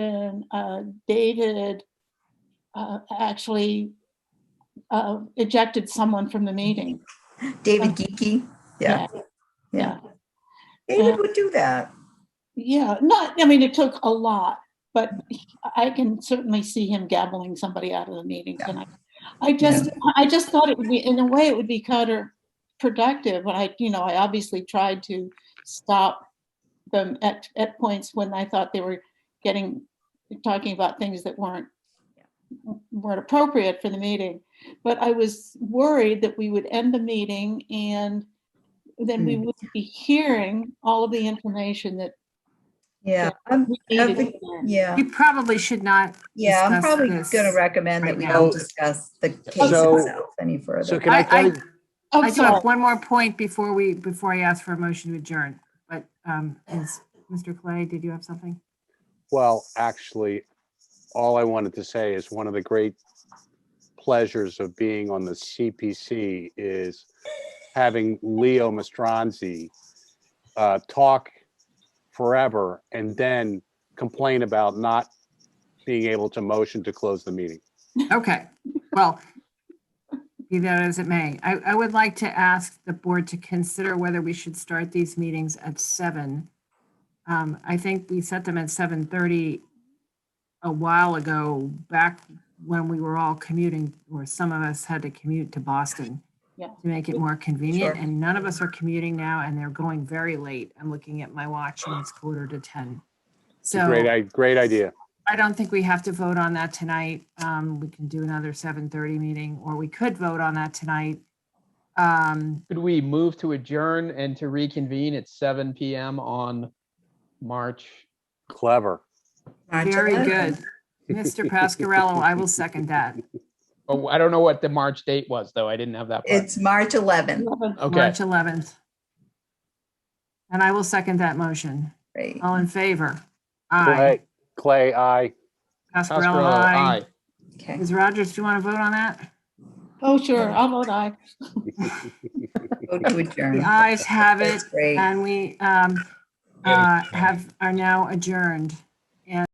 when uh, David uh, actually uh, ejected someone from the meeting. David Geeky. Yeah, yeah. David would do that. Yeah, not, I mean, it took a lot, but I can certainly see him gabbling somebody out of the meeting Yeah. tonight. I just, I just thought it would be, in a way, it would be counterproductive, but I, you know, I obviously tried to stop them at, at points when I thought they were getting, talking about things that weren't, weren't appropriate for the meeting. But I was worried that we would end the meeting and then we would be hearing all of the information that Yeah, I'm- we I needed think- then. yeah, You probably should not. yeah. I'm discuss probably this gonna recommend that right we now. don't discuss the case So- itself any So further. can I, I- can I- I'm I do sorry. have one more point before we, before I ask for a motion to adjourn, but, um, is, Mr. Clay, did you have something? well, actually, all I wanted to say is one of the great pleasures of being on the CPC is having Leo Mastronzi uh, talk forever and then complain about not being able to motion to close the meeting. Okay, well, be that as it may, I, I would like to ask the board to consider whether we should start these meetings at seven. Um, I think we set them at seven thirty a while ago, back when we were all commuting, or some of us had to commute to Boston Yeah. to make it more convenient, Sure. and none of us are commuting now, and they're going very late. I'm looking at my watch and it's quarter to ten. It's a So. Great, i- great idea. I don't think we have to vote on that tonight. Um, we can do another seven thirty meeting, or we could vote on that tonight. Um, Could we move to adjourn and to reconvene at seven PM on March? Clever. March very 11th. good. Mr. Pascarello, I will second that. Oh, I don't know what the March date was, though. I didn't have that. part. It's March 11th. Eleven. Okay, March eleventh. And I will second that motion. Right. All in favor? Aye. Clay, Clay, I, Pascarello, Pascarello, aye. aye. Okay. Ms. Rogers, do you want to vote on that? Oh, sure, I'll vote aye. Go to adjourn. The ayes have it, That's great. and we, um, uh, have, are now adjourned.